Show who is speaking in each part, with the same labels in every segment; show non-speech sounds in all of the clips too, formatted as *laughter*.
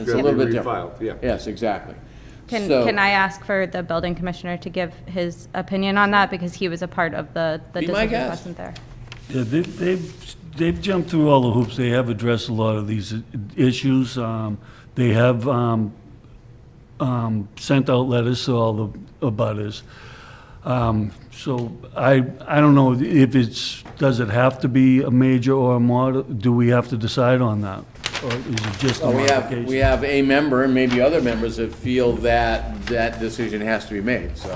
Speaker 1: it's a little bit different.
Speaker 2: Refiled, yeah.
Speaker 1: Yes, exactly.
Speaker 3: Can,
Speaker 1: So-
Speaker 3: can I ask for the building commissioner to give his opinion on that, because he was a part of the, the
Speaker 1: Be my
Speaker 3: decision,
Speaker 1: guest.
Speaker 3: wasn't there?
Speaker 4: Yeah, they've, they've, they've jumped through all the hoops. They have addressed a lot of these i- issues. Um, They have um, um, sent out letters to all the abutters. Um, So I, I don't know if it's, does it have to be a major or a mod, do we have to decide on that? Or is it just a
Speaker 1: Well, oh, we have, we
Speaker 4: modification?
Speaker 1: have a member and maybe other members that feel that that decision has to be made, so.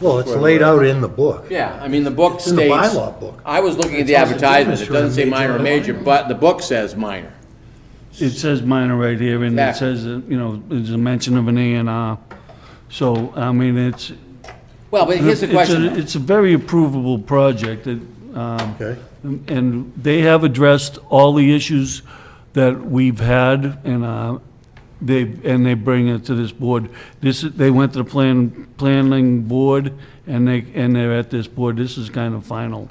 Speaker 5: Well, it's laid out in the book.
Speaker 1: Yeah, I mean, the book
Speaker 5: in
Speaker 1: states.
Speaker 5: the bylaw book.
Speaker 1: I was looking at the
Speaker 5: It tells the
Speaker 1: advertisement, it
Speaker 5: difference
Speaker 1: doesn't say
Speaker 5: between
Speaker 1: minor or major,
Speaker 5: major
Speaker 1: but the book says minor.
Speaker 4: It says minor right here, and it
Speaker 1: Exactly.
Speaker 4: says, uh, you know, there's a mention of an A and R. So, I mean, it's,
Speaker 1: Well, but here's the
Speaker 4: It's a-
Speaker 1: question,
Speaker 4: It's a very approvable project, that, um,
Speaker 5: Okay.
Speaker 4: and they have addressed all the issues that we've had, and uh, they, and they bring it to this board. This, is- they went to the plan, planning board, and they, and they're at this board. This is kind of final,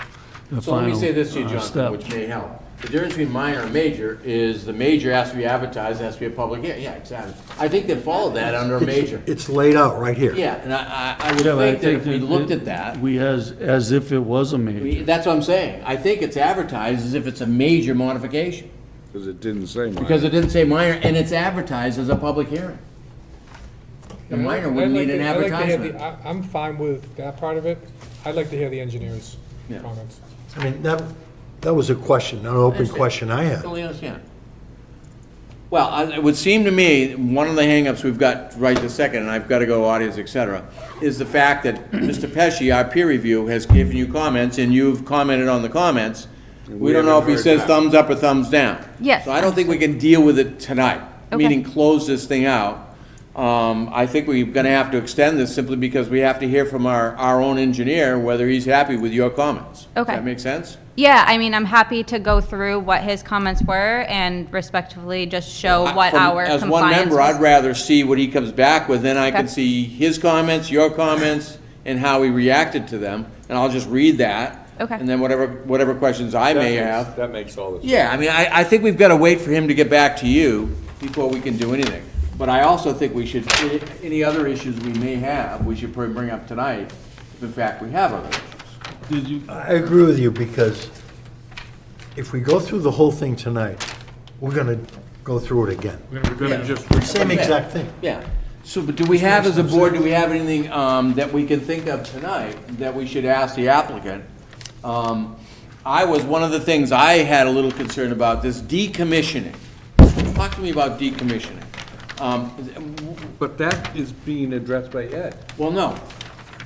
Speaker 4: the final
Speaker 1: so let me say this to you,
Speaker 4: uh,
Speaker 1: Jonathan,
Speaker 4: step.
Speaker 1: which may help. The difference between minor and major is the major has to be advertised, has to be a public, yeah, yeah, exactly. I think they followed that under a
Speaker 4: *laughs*
Speaker 1: major.
Speaker 5: It's laid out right here.
Speaker 1: Yeah, and I, I I would
Speaker 4: Yeah, but I
Speaker 1: think that if we
Speaker 4: that
Speaker 1: looked
Speaker 4: it-
Speaker 1: at that,
Speaker 4: We as, as if it was a major.
Speaker 1: we- that's what I'm saying. I think it's advertised as if it's a major modification,
Speaker 2: Because it didn't say mine.
Speaker 1: because it didn't say minor, and it's advertised as a public hearing. The minor wouldn't
Speaker 6: I'd like
Speaker 1: need an
Speaker 6: to- I'd like to hear
Speaker 1: advertisement.
Speaker 6: the- I- I'm fine with that part of it. I'd like to hear the engineer's
Speaker 1: Yeah.
Speaker 6: comments.
Speaker 5: I mean, that, that was a question, an open question I had.
Speaker 1: Totally understand. Well, I- it would seem to me, one of the hangups we've got right this second, and I've got to go audience, et cetera, is the fact
Speaker 2: *clears throat*
Speaker 1: that Mr. Pesci, our peer review, has given you comments, and you've commented on the comments. We don't know if he
Speaker 2: haven't
Speaker 1: says
Speaker 2: heard back.
Speaker 1: thumbs up or thumbs down.
Speaker 3: Yes.
Speaker 1: So I don't think we can deal with it tonight,
Speaker 3: Okay.
Speaker 1: meaning close this thing out. Um, I think we're going to have to extend this simply because we have to hear from our, our own engineer whether he's happy with your comments.
Speaker 3: Okay.
Speaker 1: Does that make sense?
Speaker 3: Yeah, I mean, I'm happy to go through what his comments were and respectfully just show
Speaker 1: I-
Speaker 3: what
Speaker 1: from-
Speaker 3: our compliance
Speaker 1: As one member,
Speaker 3: was.
Speaker 1: I'd rather see what he comes back with, then I can
Speaker 3: Okay.
Speaker 1: see his comments, your comments, and how he reacted to them, and I'll just read that.
Speaker 3: Okay.
Speaker 1: And then whatever, whatever questions I
Speaker 2: That
Speaker 1: may
Speaker 2: makes-
Speaker 1: have.
Speaker 2: That makes all the
Speaker 1: Yeah, I mean, I, I think we've gotta wait for him to get back to you before we can do anything. But I also think we should, any- any other issues we may have, we should probably bring up tonight, if in fact we have other issues.
Speaker 4: Did you,
Speaker 5: I agree with you, because if we go through the whole thing tonight, we're gonna go through it again.
Speaker 6: We're gonna just
Speaker 5: Same exact thing.
Speaker 1: Yeah, so, but do we have, as a board, do we have anything um, that we can think of tonight that we should ask the applicant? Um, I was, one of the things I had a little concern about, this decommissioning. Talk to me about decommissioning. Um,
Speaker 2: But that is being addressed by Ed.
Speaker 1: Well, no,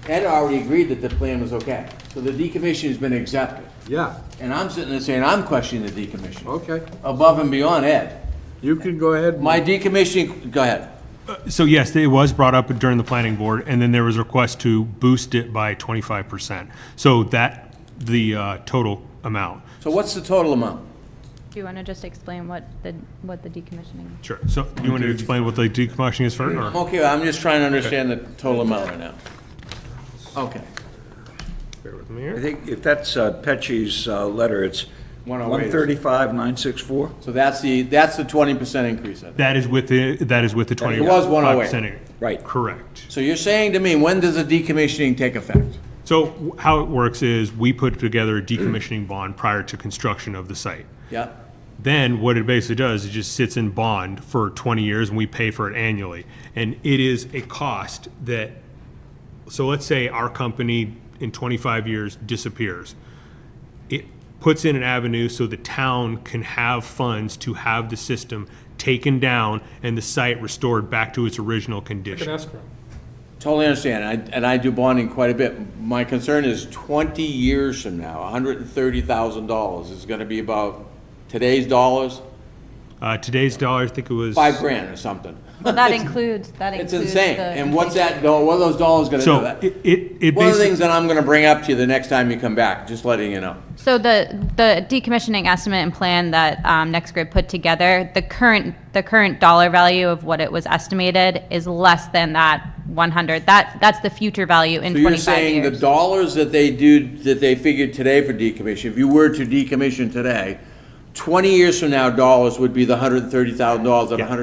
Speaker 1: Ed already agreed that the plan was okay, so the decommissioning's been accepted.
Speaker 2: Yeah,
Speaker 1: And I'm sitting there saying, I'm questioning the decommissioning.
Speaker 2: okay.
Speaker 1: Above and beyond Ed.
Speaker 2: You can go ahead. and-
Speaker 1: My decommissioning, go ahead.
Speaker 7: So yes, it was brought up during the planning board, and then there was a request to boost it by twenty-five percent. So that, the uh, total amount.
Speaker 1: So what's the total amount?
Speaker 3: Do you want to just explain what the, what the decommissioning?
Speaker 1: *laughs*
Speaker 7: Sure. So you want to explain what the decommissioning is for,
Speaker 1: I'm
Speaker 7: or?
Speaker 1: okay, I'm just trying to understand the total amount right now. Okay.
Speaker 8: I think if that's uh, Pecci's uh, letter, it's
Speaker 1: 108.
Speaker 8: 135,964.
Speaker 1: So that's the, that's the twenty percent increase, I think.
Speaker 7: That is with the, that is with the twenty.
Speaker 1: It was 108.
Speaker 7: 5%.
Speaker 8: Right.
Speaker 7: Correct.
Speaker 1: So you're saying to me, when does the decommissioning take effect?
Speaker 7: So w- how it works is, we put together a decommissioning bond prior to construction of the site.
Speaker 1: Yeah,
Speaker 7: Then what it basically does, it just sits in bond for 20 years and we pay for it annually. And it is a cost that, so let's say our company in 25 years disappears. It puts in an avenue so the town can have funds to have the system taken down and the site restored back to its original
Speaker 6: Like an
Speaker 7: condition.
Speaker 6: escrow.
Speaker 1: totally understand, I- and I do bonding quite a bit. My concern is twenty years from now, hundred and thirty thousand dollars is gonna be about today's dollars,
Speaker 7: Uh, Today's dollar, I think it was.
Speaker 1: five grand or something.
Speaker 3: Well, that includes, that
Speaker 1: It's
Speaker 3: includes.
Speaker 1: insane,
Speaker 3: the
Speaker 1: and what's
Speaker 3: completion.
Speaker 1: that, go- what are those dollars gonna do?
Speaker 7: So
Speaker 1: That-
Speaker 7: it, it it
Speaker 1: One of the things
Speaker 7: basically,
Speaker 1: that I'm gonna bring up to you the next time you come back, just letting you know.
Speaker 3: So the, the decommissioning estimate and plan that um, Next Grid put together, the current, the current dollar value of what it was estimated is less than that 100. That, that's the future value in
Speaker 1: So you're
Speaker 3: 25
Speaker 1: saying the
Speaker 3: years.
Speaker 1: dollars that they do, that they figured today for decommission, if you were to decommission today, twenty years from now, dollars would be the hundred and thirty thousand dollars and
Speaker 7: Yeah.
Speaker 1: hundred